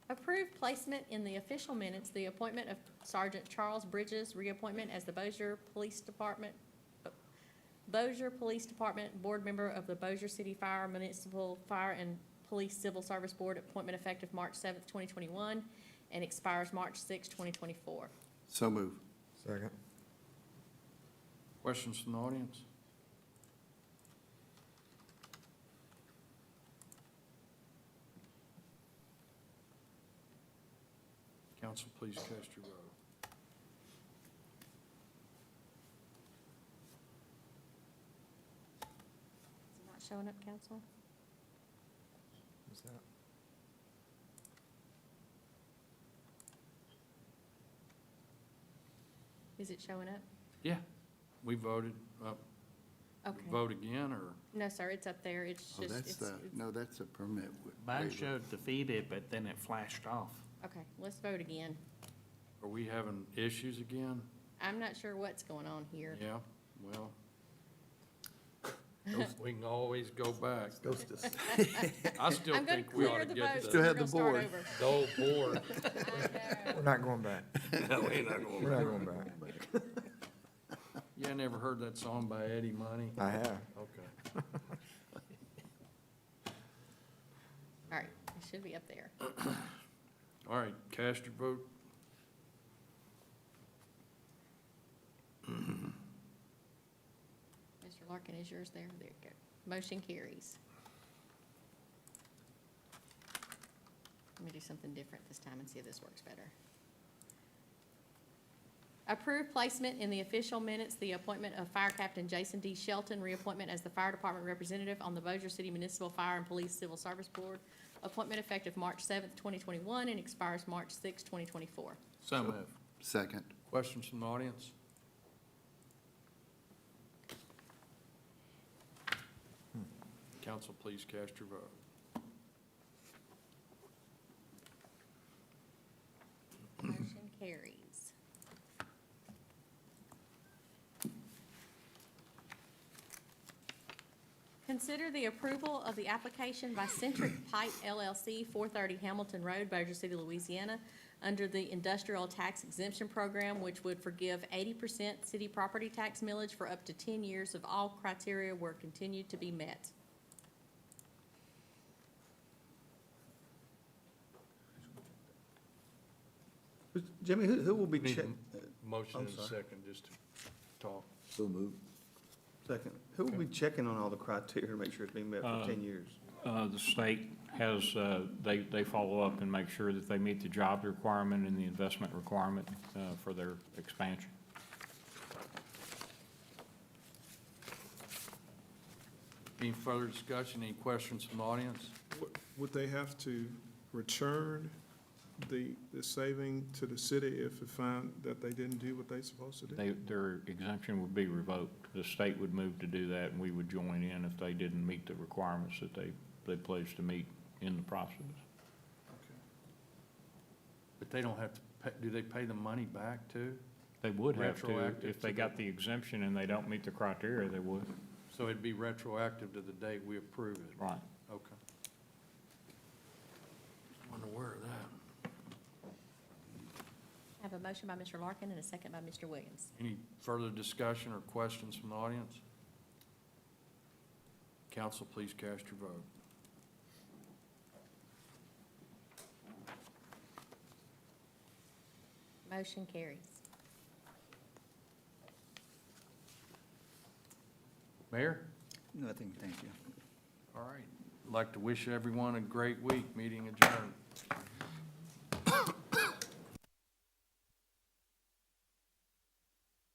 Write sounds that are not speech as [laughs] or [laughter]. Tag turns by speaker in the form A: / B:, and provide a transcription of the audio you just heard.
A: Approved placement in the official minutes, the appointment of Sergeant Charles Bridges, reappointment as the Bossier Police Department, Bossier Police Department Board Member of the Bossier City Fire Municipal Fire and Police Civil Service Board, appointment effective March seventh, twenty twenty-one, and expires March sixth, twenty twenty-four.
B: So move.
C: Second.
D: Questions from the audience? Council, please cast your vote.
A: Is it not showing up, council?
C: Is that-
A: Is it showing up?
D: Yeah, we voted, uh,
A: Okay.
D: vote again, or?
A: No, sir, it's up there. It's
B: Oh,
A: just,
B: that's
A: it's,
B: the,
A: it's-
B: no, that's a permit. wa-
E: Mine
B: waiver.
E: showed defeated, but then it flashed off.
A: okay, let's vote again.
D: Are we having issues again?
A: I'm not sure what's going on here.
D: Yeah, well, we can always go back.
C: Ghost us.
D: I still
A: I'm gonna
D: think we ought
A: clear
D: to
A: the
D: get
A: votes.
D: to
B: Still
D: the
B: have
A: We're
B: the
A: gonna
B: board.
A: start
D: the old board.
A: over. I know.
C: We're not going [laughs] back. We're not going back.
D: Yeah, I never heard that song by Eddie Money.
C: I have.
D: Okay.
A: All right, it should be up there.
D: All right, cast your vote.
A: Mr. Larkin, is yours there? There you go. Motion carries. Let me do something different this time and see if this works better. Approved placement in the official minutes, the appointment of Fire Captain Jason D. Shelton, reappointment as the Fire Department Representative on the Bossier City Municipal Fire and Police Civil Service Board. Appointment effective March seventh, twenty twenty-one, and expires March sixth, twenty twenty-four.
D: So moved.
B: Second.
D: Questions from the audience? Council, please cast your vote.
A: Motion carries. Consider the approval of the application by Centric Pipe LLC, 430 Hamilton Road, Bossier City, Louisiana, under the Industrial Tax Exemption Program, which would forgive 80% city property tax millage for up to 10 years if all criteria were continued to be met.
F: Jimmy, who, who will be
D: Need a
F: check, uh,
D: m- Motion
F: I'm
D: and a
F: sorry.
D: second, just to talk.
B: So move.
F: second, who will be checking on all the criteria to make sure it's being met for ten years?
G: Uh, The state has, uh, they, they follow up and make sure that they meet the job requirement and the investment requirement uh, for their expansion.
D: Any further discussion, any questions from the audience?
H: Would- Would they have to return the, the saving to the city if it found that they didn't do what they supposed to do?
G: They, their exemption would be revoked. The state would move to do that, and we would join in if they didn't meet the requirements that they, they pledged to meet in the process.
D: But they don't have to, pay- do they pay the money back too?
G: They would have to,
D: Retroactive
G: if
D: to
G: they
D: the-
G: got the exemption and they don't meet the criteria, they would.
D: So it'd be retroactive to the date we approve it?
G: Right.
D: Okay. Wonder where that.
A: I have a motion by Mr. Larkin and a second by Mr. Williams.
D: Any further discussion or questions from the audience? Council, please cast your vote.
A: Motion carries.
D: Mayor?
B: Nothing, thank you.
D: All right. Like to wish everyone a great week. Meeting adjourned.